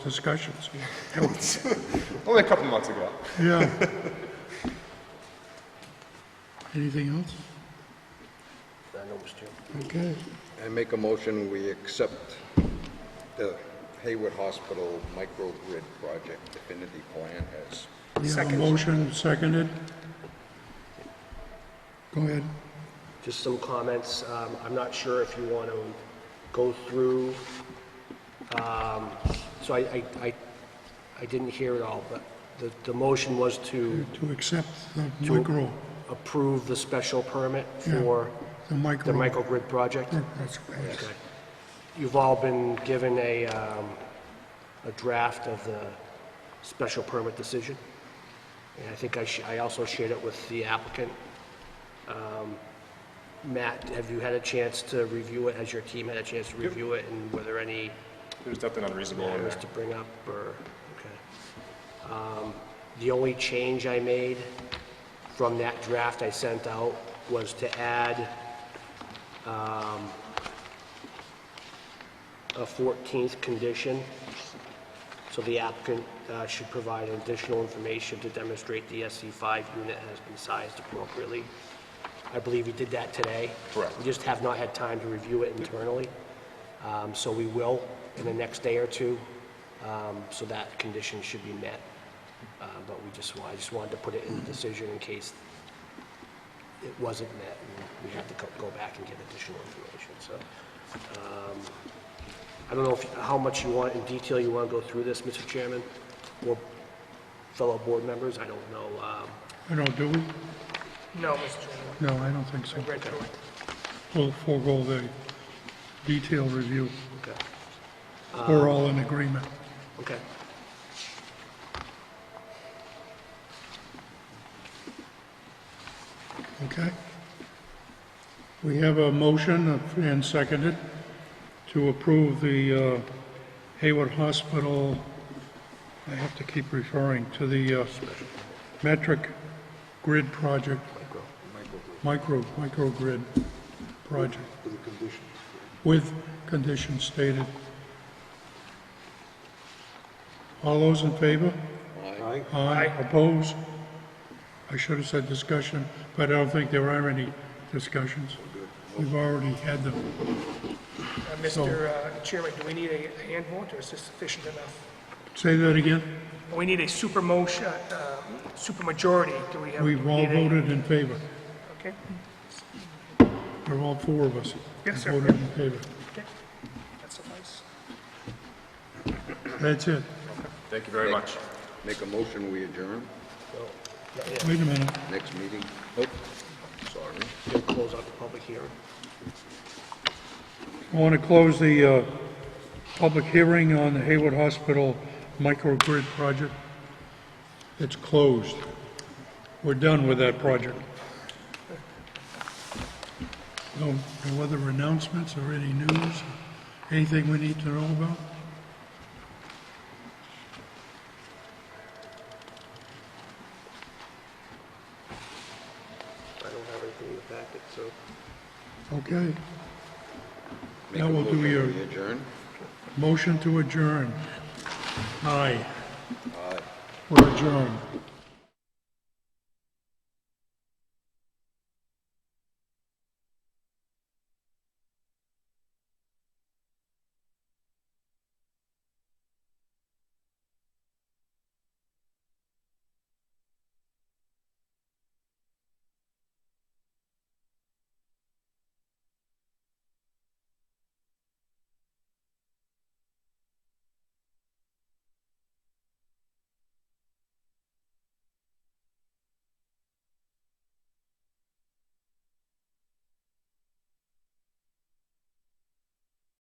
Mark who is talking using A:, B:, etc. A: discussions.
B: Only a couple months ago.
A: Yeah. Anything else? Okay.
C: I make a motion, we accept the Hayward Hospital microgrid project definitive plan as,
A: We have a motion seconded. Go ahead.
D: Just some comments. Um, I'm not sure if you want to go through, um, so I, I, I- I didn't hear it all, but the, the motion was to
A: To accept the micro,
D: approve the special permit
A: Yeah.
D: for
A: the micro. Oh,
D: the microgrid project.
A: That's right.
D: Okay. You've all been given a, um, a draft of the special permit decision. And I think I, sh- I also shared it with the applicant. Um, Matt, have you had a chance to review it? Has your team had a chance to review it? And were there any
B: There's nothing unreasonable in
D: errors
B: there.
D: to bring up or, okay? Um, The only change I made from that draft I sent out was to add um, a 14th condition. So the applicant uh, should provide additional information to demonstrate the SC5 unit has been sized appropriately. I believe you did that today.
B: Correct.
D: We just have not had time to review it internally. Um, So we will in the next day or two. Um, So that condition should be met. Uh, But we just, wa- I just wanted to put it in the decision in case it wasn't met and we had to go- go back and get additional information. So um, I don't know if, how much you want, in detail you want to go through this, Mr. Chairman, or fellow board members, I don't know. um,
A: I don't, do we?
E: No, Mr. Chairman,
A: No, I don't think so.
E: I read through it.
A: We'll forego the detailed review.
D: Okay,
A: We're all in agreement.
D: okay.
A: Okay. We have a motion and seconded to approve the uh, Hayward Hospital, I have to keep referring to the uh, metric grid project. Micro. Micro, microgrid project. With conditions stated. All those in favor? Aye. Aye. Opposed? I should have said discussion, but I don't think there are any discussions. We've already had them.
E: Uh, Mr. uh, Chairman, do we need a a hand vote, or is this sufficient enough?
A: Say that again?
E: We need a super motion, uh, super majority, do we have?
A: We've all
E: need a-
A: voted in favor.
E: Okay,
A: There are all four of us.
E: Yes, sir.
A: Voted in favor.
E: okay, that suffices.
A: That's it.
B: Thank you very much.
C: make a motion, we adjourn
A: Wait a minute.
C: next meeting. Nope, sorry.
D: We'll close out the public hearing.
A: I want to close the uh, public hearing on the Hayward Hospital microgrid project. It's closed. We're done with that project. No no other announcements or any news, anything we need to know about?
D: I don't have anything in the packet, so.
A: Okay.
C: Make
A: Now
C: a
A: we'll
C: motion,
A: do your
C: we adjourn.
A: motion to adjourn. Aye. We're adjourned.